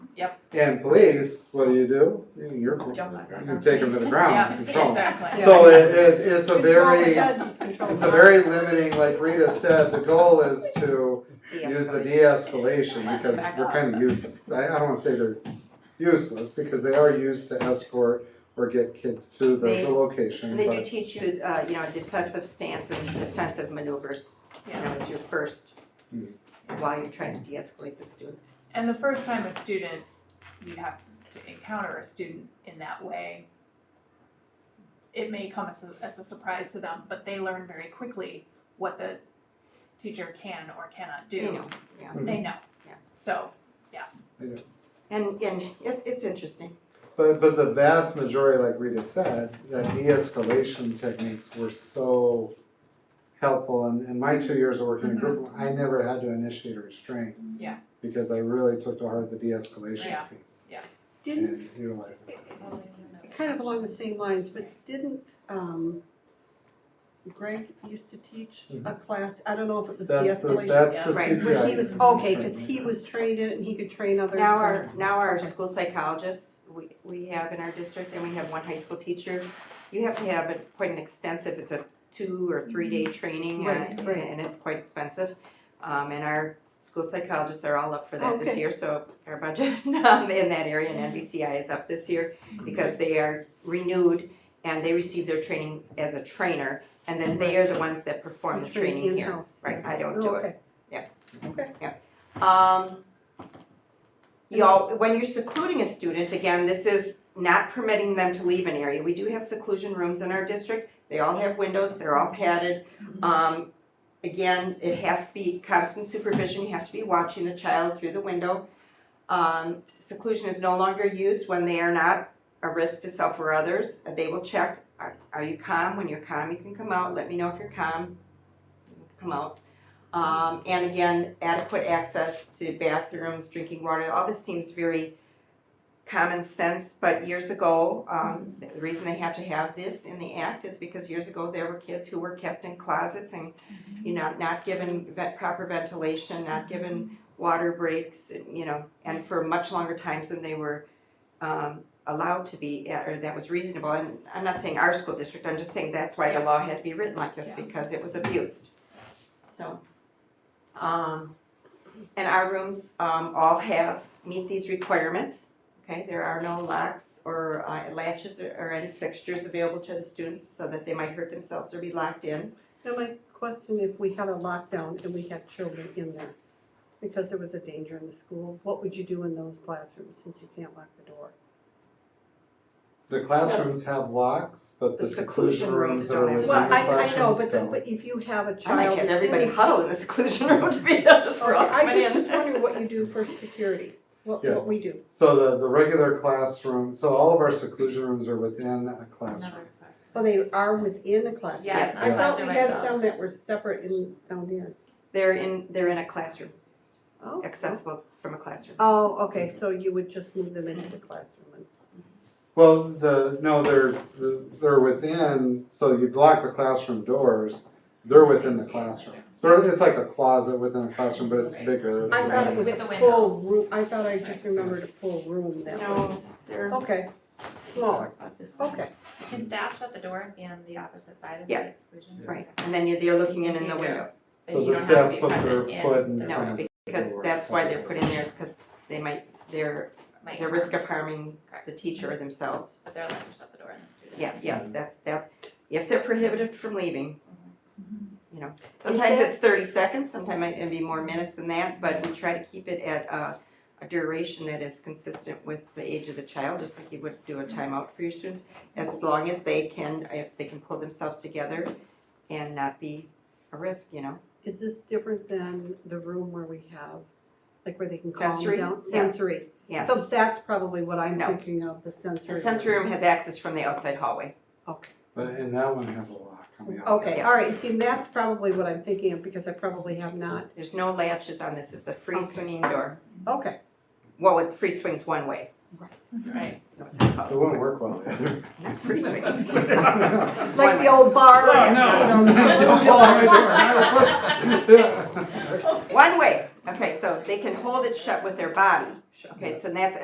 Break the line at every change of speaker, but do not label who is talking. Yep.
And police, what do you do? You're,
Jump on
you take them to the ground,
Yeah,
and control 'em.
exactly.
So it, it, it's a
Control
very,
the gun, control
it's
the
a
gun.
very limiting, like Rita said, the goal is to use the de-escalation, because they're kinda useless. I, I don't wanna say they're useless, because they are used to escort or get kids to the,
They-
the location,
They do
but,
teach you, uh, you know, defensive stances, defensive maneuvers, you know, as your first,
Hmm.
while you're trying to de-escalate the student.
And the first time a student, you have to encounter a student in that way, it may come as a, as a surprise to them, but they learn very quickly what the teacher can or cannot do.
You know, yeah.
They know.
Yeah.
So,
And, and it's, it's interesting.
but, but the vast majority, like Rita said, that de-escalation techniques were so helpful, and in my two years of working in group, I never had to initiate a restraint.
Mm-hmm. Yeah.
Because I really took to heart the de-escalation
Yeah.
piece.
Didn't,
And utilized it.
kind of along the same lines, but didn't, um, Greg used to teach a class, I don't know if it was
That's the,
de-escalation.
that's the
Right.
CPI.
But he was, okay, cause he was trained in it and he could train others.
Now
so-
our, now our
Okay.
school psychologists, we, we have in our district, and we have one high school teacher, you have to have a- quite an extensive, it's a two or three-day training, uh,
Mm-hmm. Right,
and
right.
and it's quite expensive. Um, And our school psychologists are all up for that this
Okay.
year, so our budget um, in that area and NBCI is up this year because they are renewed and they receive their training as a trainer, and then they are the ones that perform the
He trained
training here.
in-house.
Right, I don't
Oh,
do it.
okay.
Um, you all, when you're secluding a student, again, this is not permitting them to leave an area. We do have seclusion rooms in our district. They all have windows, they're all padded.
Mm-hmm.
Um, again, it has to be constant supervision. You have to be watching the child through the window. Um, seclusion is no longer used when they are not a risk to self or others. uh, They will check, are, are you calm? When you're calm, you can come out. Let me know if you're calm. Come out. Um, and again, adequate access to bathrooms, drinking water, all this seems very common sense, but years ago, um, the reason they have to have this in the act is because years ago, there were kids who were kept in closets and, you know, not given vet, proper ventilation, not given water breaks, you know, and for much longer times than they were, um, allowed to be, uh, or that was reasonable, and I'm not saying our school district, I'm just saying that's why the law had to be written like this,
Yeah.
because it was abused. So, um, and our rooms, um, all have, meet these requirements. Okay, there are no locks or uh, latches or- or any fixtures available to the students so that they might hurt themselves or be locked in.
Now my question, if we had a lockdown and we had children in there, because there was a danger in the school, what would you do in those classrooms since you can't lock the door?
The classrooms have locks, but the
The
seclusion
seclusion
rooms
rooms
that are
don't have
within the
Well, I,
classrooms
I know, but, the-
don't.
but if you have a
I might
child.
have
that's in
everybody
the-
huddle in the seclusion room to be honest, we're all
Okay, I
coming
just was wondering
in.
what you do for security, what,
Yeah.
what we do.
So the, the regular classroom, so all of our seclusion rooms are within a classroom.
Oh, they are within the classroom?
Yes,
I thought we
classroom
had
itself.
some that were separate in, down here.
They're in, they're in a classroom,
Oh,
accessible from a classroom.
Oh, okay, so you would just move them into the classroom and.
Well, the, no, they're, the- they're within, so you block the classroom doors, they're within the classroom. They're, it's like a closet within a classroom, but it's bigger. it's
I thought it
like-
was
With the
a
window.
full room, I thought I just remembered a full room that was,
They're
okay, smaller,
about this size.
okay.
Can staff shut the door and be on the opposite side of
Yeah.
the exclusion?
Right, and then you're, they're looking in in the window.
But
So the
you don't have to
staff
be
put their
present in
foot in
the
front
No,
of the
because
door.
that's why they're put in there is because they might, they're,
Might
they're
harm,
risk of harming
Correct.
the teacher or themselves.
But they're allowed to shut the door and the student.
Yeah, yes, that's, that's, if they're prohibited from leaving, you
Mm-hmm.
know,
Is
sometimes
that-
it's thirty seconds, sometimes it can be more minutes than that, but we try to keep it at a, a duration that is consistent with the age of the child, just like you would do a
Mm-hmm.
timeout for your students, as long as they can, if they can pull themselves together and not be a risk, you know?
Is this different than the room where we have, like where they can calm
Sensory?
down?
Yeah.
Sensory.
Yes.
So that's probably what I'm
No.
thinking of, the sensory.
The sensory room
rooms.
has access from the outside hallway.
Okay.
But, and that one has a lock on the outside.
Okay,
Yeah.
all right, see, that's probably what I'm thinking of, because I probably have not,
There's no latches on this, it's a free
Okay.
swinging door.
okay.
Well, it free swings one way.
Right.
you know what that's called.
It wouldn't work well either.
Not free swinging.
It's like the old bar.
Oh,
you know, the little
no.
One way, okay, so they can hold it shut with their body, okay, so that's,